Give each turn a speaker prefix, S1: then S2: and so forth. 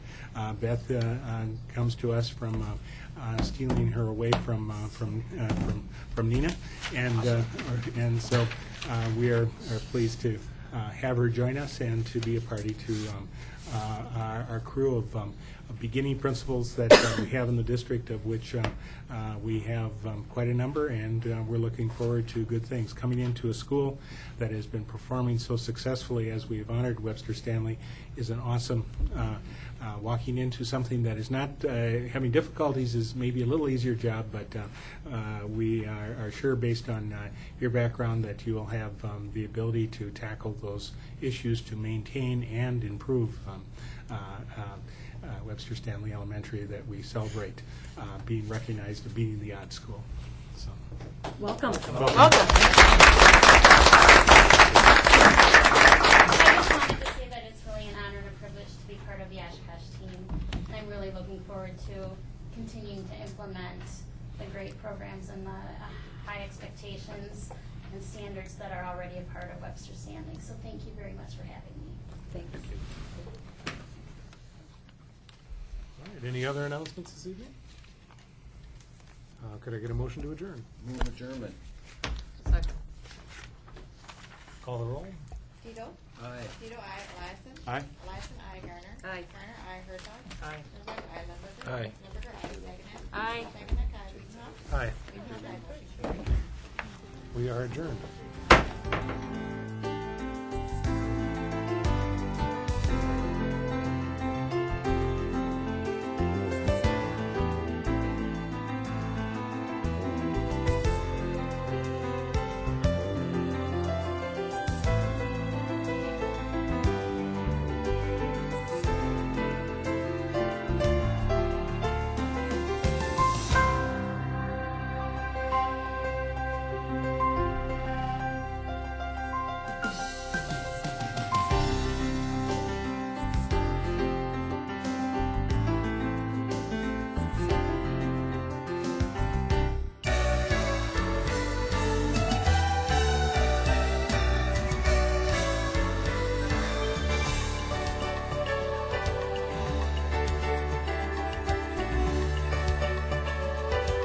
S1: Uh, Beth uh, uh, comes to us from uh, uh, stealing her away from, uh, from, uh, from from Nina, and, uh, and so uh, we are are pleased to uh, have her join us and to be a party to um, uh, our our crew of um, of beginning principals that uh, we have in the district, of which uh, uh, we have um, quite a number, and uh, we're looking forward to good things. Coming into a school that has been performing so successfully as we have honored Webster Stanley is an awesome, uh, uh, walking into something that is not, uh, having difficulties is maybe a little easier job, but uh, uh, we are are sure, based on uh, your background, that you will have um, the ability to tackle those issues to maintain and improve um, uh, uh, uh, Webster Stanley Elementary that we celebrate uh, being recognized as being the odd school. So,
S2: Welcome.
S3: I just wanted to say that it's really an honor and a privilege to be part of the Oshkosh team. And I'm really looking forward to continuing to implement the great programs and the uh, high expectations and standards that are already a part of Webster Stanley. So thank you very much for having me.
S2: Thanks.
S4: All right, any other announcements this evening? Uh, Could I get a motion to adjourn?
S5: Move adjournment.
S4: Call the roll?
S6: Tito?
S5: Aye.
S6: Tito, aye. Eliason?
S4: Aye.
S6: Eliason, aye. Garner?
S2: Aye.
S6: Garner, aye. Herzog?
S4: Aye.
S6: Herzog, aye. Lumberger?
S5: Aye.
S6: Lumberger, aye.
S2: Aye.
S6: Saginaw? Saginaw, aye. Wiesenhuck?
S4: Aye,
S6: Wiesenhuck, aye. Motion carried.
S4: we are adjourned.